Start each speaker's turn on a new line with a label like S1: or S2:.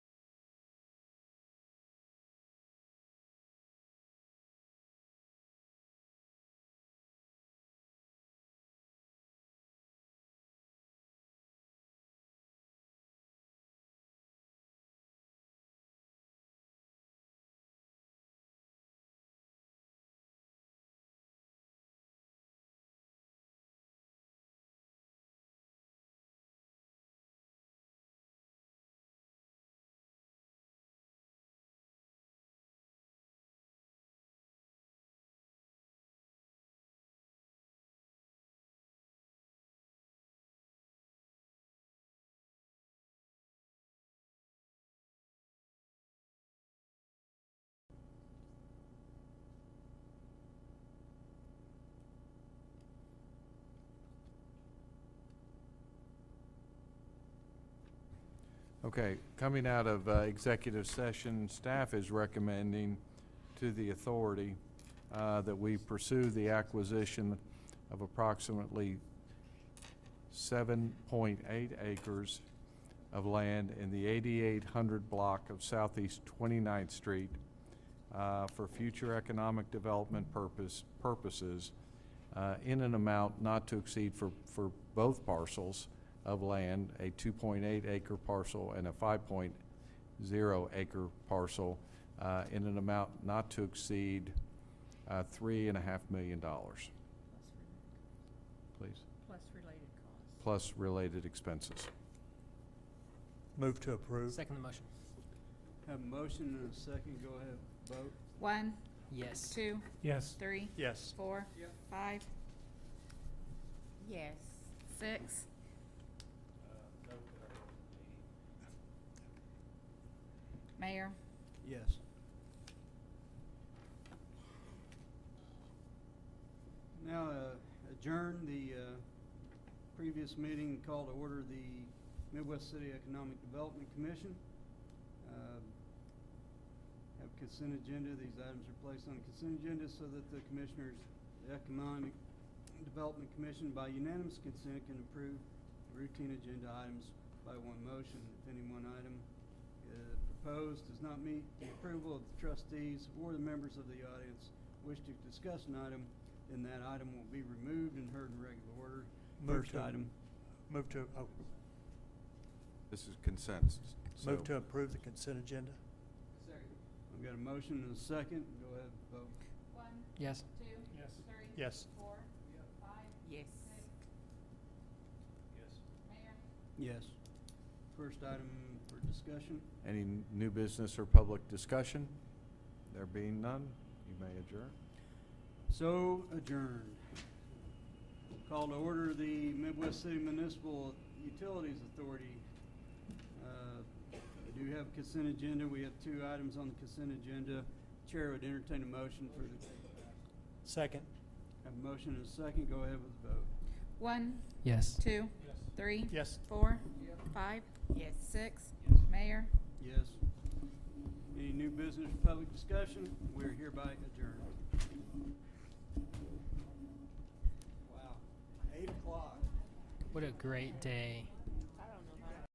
S1: Okay, coming out of uh, executive session, staff is recommending to the authority uh, that we pursue the acquisition of approximately 7.8 acres of land in the 8800 block of Southeast 29th Street uh, for future economic development purpose, purposes uh, in an amount not to exceed for, for both parcels of land, a 2.8 acre parcel and a 5.0 acre parcel, uh, in an amount not to exceed uh, $3.5 million, please,
S2: Plus related costs.
S1: plus related expenses.
S3: Move to approve.
S4: Second the motion.
S5: Have a motion and a second, go ahead, vote.
S2: One,
S4: Yes.
S2: two,
S3: Yes.
S2: three,
S3: Yes.
S2: four,
S5: Yep.
S2: five. Yes. Six. Mayor,
S5: Yes. Now uh, adjourn the uh, previous meeting and call to order the Midwest City Economic Development Commission. Uh, Have consent agenda, these items are placed on consent agenda so that the Commissioners, the Economic Development Commission by unanimous consent can approve routine agenda items by one motion. If any one item uh, proposed does not meet the approval of the trustees or the members of the audience wish to discuss an item, then that item will be removed and heard in regular order.
S3: Move
S5: First
S3: to-
S5: item,
S3: Move to, oh,
S1: This is consensus.
S3: move
S1: so-
S3: to approve the consent agenda?
S5: I've got a motion and a second, go ahead and vote.
S4: Yes.
S3: Yes.
S2: Yes.
S5: Yes. First item for discussion,
S1: Any n- new business or public discussion? There being none, you may adjourn.
S5: so adjourned. Call to order the Midwest City Municipal Utilities Authority. Uh, We do have consent agenda, we have two items on the consent agenda. Chair would entertain a motion for the,
S3: Second?
S5: have a motion and a second, go ahead with the vote.
S2: One,
S4: Yes.
S2: two, three,
S3: Yes.
S2: four, five. Yes. Six. Mayor.
S5: Yes. Any new business or public discussion? We're hereby adjourned. Wow, eight o'clock.
S4: What a great day.